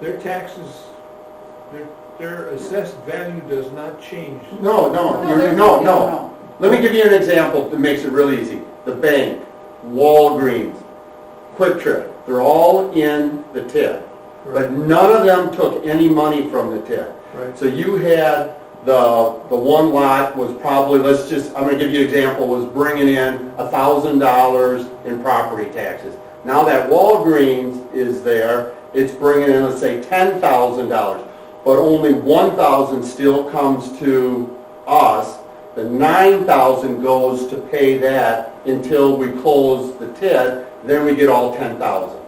Their taxes, their, their assessed value does not change. No, no, No, you're- they're- no, no, no. no. Let me give you an example that makes it real easy. The bank, Walgreens, Quick Trip, they're all in the TIF. But Right. none of them took any money from the TIF. Right. So you had the, the one lot was probably, let's just, I'm gonna give you an example, was bringing in a thousand dollars in property taxes. Now that Walgreens is there, it's bringing in, let's say, ten thousand dollars, but only one thousand still comes to us. The nine thousand goes to pay that until we close the TID, then we get all ten thousand.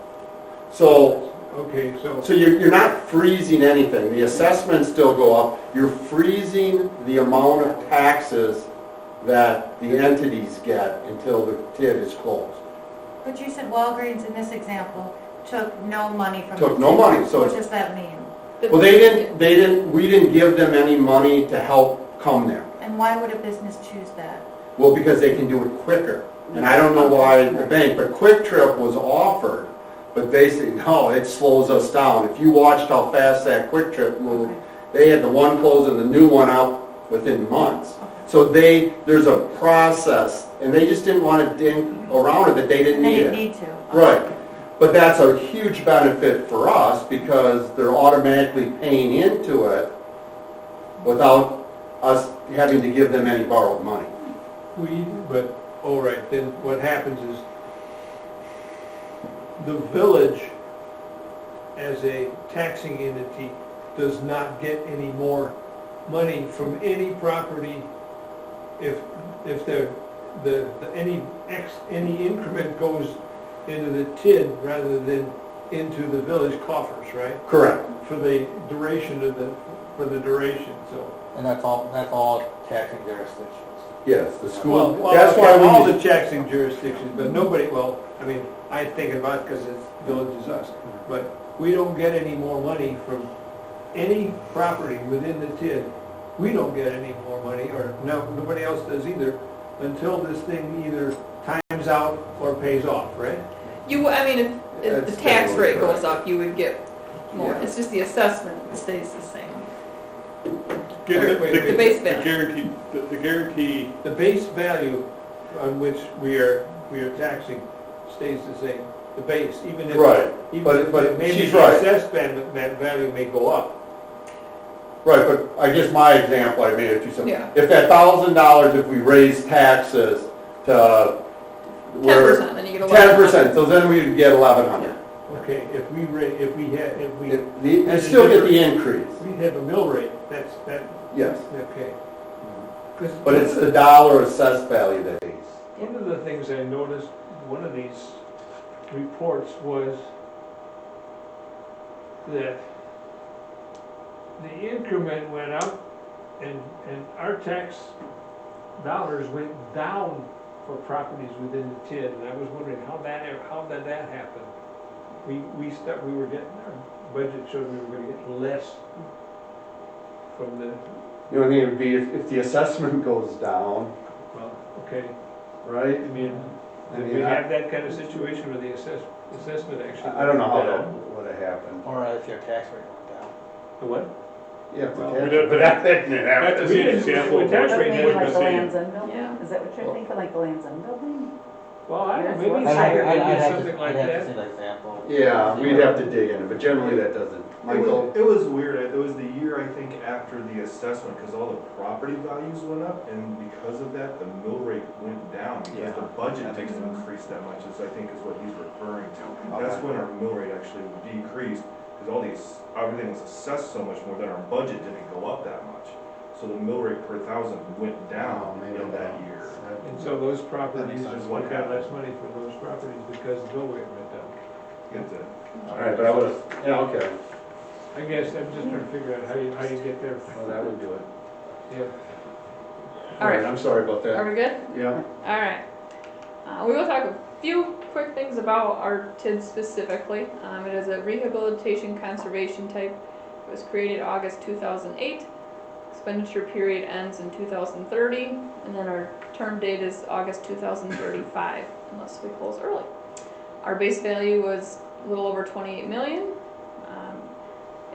So Okay, so, so you're, you're not freezing anything, the assessments still go up, you're freezing the amount of taxes that the entities get until the TID is closed. But you said Walgreens in this example took no money from. Took no money, so What it's- does that mean? Well, they didn't, they didn't, we didn't give them any money to help come there. And why would a business choose that? Well, because they can do it quicker. And I don't know why the bank, but Quick Trip was offered, but they said, no, it slows us down. If you watched how fast that Quick Trip moved, they had the one close and the new one out within months. So they, there's a process, and they just didn't want to ding around it, that they didn't They need didn't it. need to. Right. But that's a huge benefit for us because they're automatically paying into it without us having to give them any borrowed money. we, but, all right, then what happens is the village as a taxing entity does not get any more money from any property if, if the, the, the- any X, any increment goes into the TID rather than into the village coffers, right? Correct. for the duration of the, for the duration, so. And that's all, that's all taxing jurisdictions. Yes, the Well, school, well, that's okay, All why we, the taxing jurisdictions, but nobody, well, I mean, I think about, because it's village is us, but we don't get any more money from any property within the TID. We don't get any more money, or no, nobody else does either, until this thing either times out or pays off, right? You, I mean, if, if the That's tax definitely rate correct. goes up, you would get more. Yeah. It's just the assessment that stays the same. The Wait, wait, wait. The base the bid. guarantee, the- the guarantee, The base value on which we are, we are taxing stays the same, the base, even if. Right, even but- if but maybe she's the right. assessed van- that value may go up. right, but I guess my example I made it too simple. Yeah. If that thousand dollars, if we raise taxes to. Ten percent, then you get a lot. Ten percent, so then we'd get eleven hundred. Okay, if we ra, if we had, if we, if You still get the increase, we have a mill rate, that's, that, yes, okay. 'Cause but it's the dollar assessed value that is. One of the things I noticed, one of these reports was that the increment went up and, and our tax dollars went down for properties within the TID. And I was wondering how that, how did that happen? We, we stuck, we were getting, our budget showed we were gonna get less from the, The only thing would be if, if the assessment goes down, well, okay, right? I mean, I did mean, we I- have that kind of situation where the assess, assessment actually? I I don't know how went down? that would have happened. Or if your tax rate went down. The what? Yeah, if the well, tax- we don't- but that, that didn't happen. That's an example of That's what what we we're did. gonna see. End Yeah. building, is that what you're thinking, like the Land's End building? Well, I don't know, I'd maybe have- higher, I'd- I'd maybe have to- something like I'd have to see that. the example. Yeah, we'd have to dig in it, but generally that doesn't. It Michael? was, it was weird, it was the year, I think, after the assessment, because all the property values went up, and because of that, the mill rate went down, because the Yeah, budget that makes didn't sense. increase that much, is, I think, is what he's referring to. Okay. That's when our mill rate actually decreased, because all these, everything was assessed so much more that our budget didn't go up that much. So the mill rate per thousand went Oh, down maybe in that not. year. And so those properties, That makes just sense. got less money for those properties because the mill rate went down. It's a- All right, but I would've, yeah, okay, I guess I'm just trying to figure out how you, how you get there. well, that would do it. Yeah. All right. I'm sorry about that. Are we good? Yeah, All right. Uh, we will talk a few quick things about our TID specifically. Um, it is a rehabilitation conservation type. It was created August 2008. Expenditure period ends in 2030, and then our term date is August 2035, unless we close early. Our base value was a little over 28 million. Um,